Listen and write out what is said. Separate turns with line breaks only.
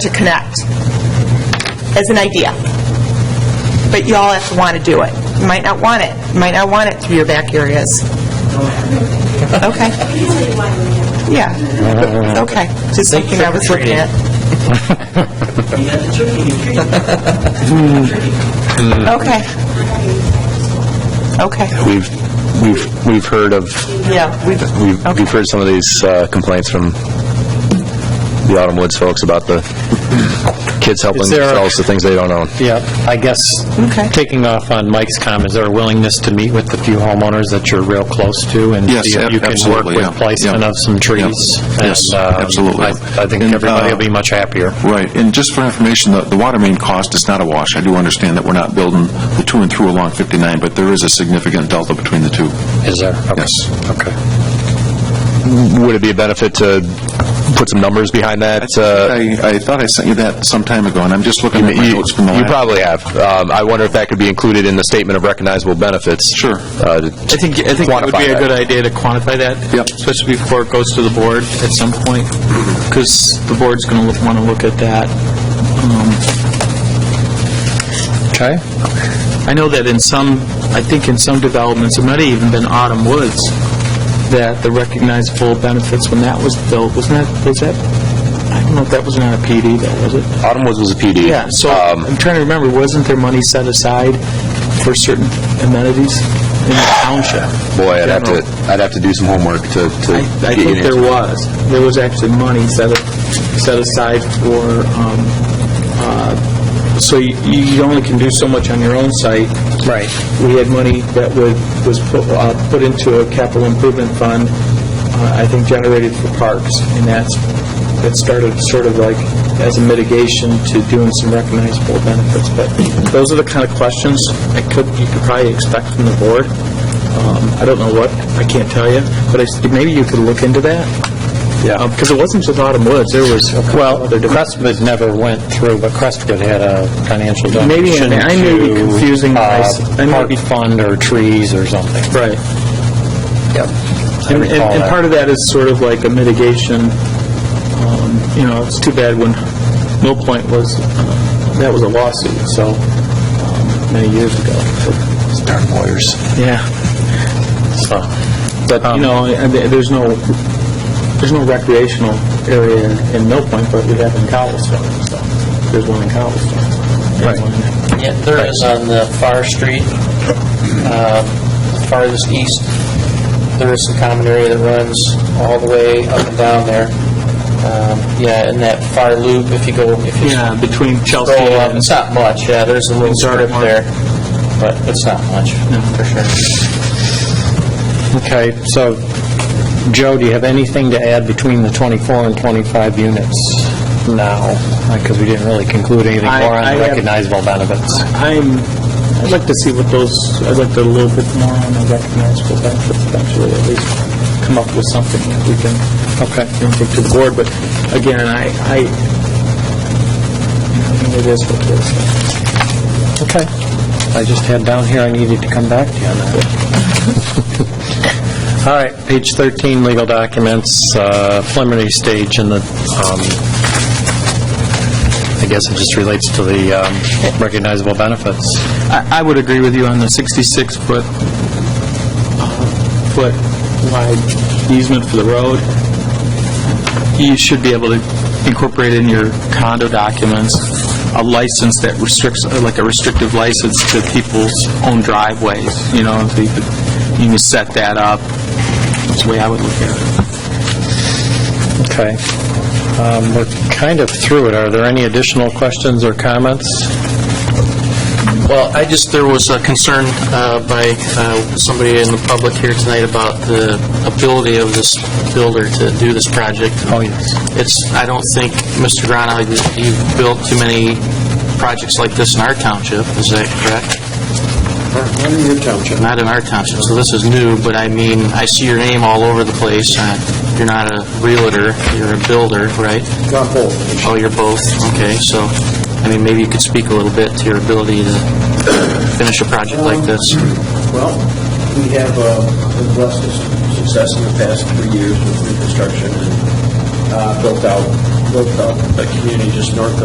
to connect, as an idea. But y'all have to want to do it. You might not want it, you might not want it through your back areas. Okay. Yeah, okay, just something I was looking at. Okay. Okay,
We've, we've, we've heard of,
yeah, we
we've
Okay.
we've heard some of these uh, complaints from the Autumn Woods folks about the kids helping
Is there a-
themselves to things they don't own.
Yeah, I guess,
Okay.
taking off on Mike's comment, is there a willingness to meet with the few homeowners that you're real close to?
Yes, ab-
And see if you can
absolutely,
work
yeah,
with placement
yeah.
of some trees?
Yeah, yes,
And, um,
absolutely.
I I think
And,
everybody
uh,
will be much happier.
Right, and just for information, the, the water main cost is not a wash. I do understand that we're not building the to and through along 59, but there is a significant delta between the two.
Is there? Okay.
Yes.
Okay.
Would it be a benefit to put some numbers behind that? uh,
I, I thought I sent you that some time ago, and I'm just looking at my
You
notes from the
you
last...
probably have. Um, I wonder if that could be included in the statement of recognizable benefits.
Sure.
uh, to
I think, I think it would
quantify
be a
that.
good idea to quantify that.
Yep.
Especially before it goes to the board at some point,
Mm-hmm.
because the board's going to want to look at that.
Okay.
I know that in some, I think in some developments, it might have even been Autumn Woods, that the recognizable benefits when that was built, wasn't that, was that, I don't know if that was not a PD though, was it?
Autumn Woods was a PD.
Yeah, so
Um,
I'm trying to remember, wasn't there money set aside for certain amenities in the township?
Boy, I'd have to,
General.
I'd have to do some homework to to
I I
get you an
think
answer.
there was. There was actually money set, a- set aside for, um, uh, so you, you only can do so much on your own site. Right. We had money that was, was put, uh, put into a capital improvement fund, uh, I think generated for parks, and that's, that started sort of like as a mitigation to doing some recognizable benefits, but those are the kind of questions I could, you could probably expect from the board. Um, I don't know what, I can't tell you, but I s- maybe you could look into that. Yeah. Because it wasn't just Autumn Woods, there was a couple
Well,
other developments.
Crestwood never went through, but Crestwood had a financial
Maybe I-
donation
I may be
to,
confusing my
uh,
s- I may
Park
be-
Fund or trees or something.
Right.
Yep.
And, and and part of that is sort of like a mitigation, um, you know, it's too bad when Mill Point was, uh, that was a lawsuit, so, um, many years ago.
Darn lawyers.
Yeah.
So,
But,
Um,
you know, and there- there's no, there's no recreational area in Mill Point, but we have in Cowalstown, so, there's one in Cowalstown. Right.
Yeah, there is on the far street, um, farthest east, there is some common area that runs all the way up and down there. Um, Yeah, in that far loop, if you go, if you
Yeah, between Chelsea
scroll up,
and...
it's not much, yeah, there's a little
Sorry,
strip
Mark.
there, but it's not much, for sure.
okay, so, Joe, do you have anything to add between the 24 and 25 units now? Because we didn't really conclude anything
I-
more
I
on
have-
recognizable benefits.
I'm, I'd like to see what those, I'd like to a little bit more on the recognizable benefits eventually, at least come up with something that we can, okay, take to the board, but again, I, I, you know, it is what it is.
Okay. I just had down here, I needed to come back to you on that. All right, page 13, legal documents, uh, preliminary stage in the, um, I guess it just relates to the um, recognizable benefits.
I, I would agree with you on the 66-foot, foot wide easement for the road. You should be able to incorporate in your condo documents a license that restricts, uh, like a restrictive license to people's own driveways, you know, if you could, you can set that up. That's the way I would look at it.
Okay. Um, We're kind of through it. Are there any additional questions or comments?
Well, I just, there was a concern uh, by uh, somebody in the public here tonight about the ability of this builder to do this project.
Oh, yes.
It's, I don't think, Mr. Grana, you- you've built too many projects like this in our township, is that correct? Not in your township. Not in our township, so this is new, but I mean, I see your name all over the place. Uh, You're not a realtor, you're a builder, right? Oh, you're both, okay, so, I mean, maybe you could speak a little bit to your ability to finish a project like this.
Well, we have uh, been blessed with success in the past three years with reconstruction and uh, built out
built up.
a community just north of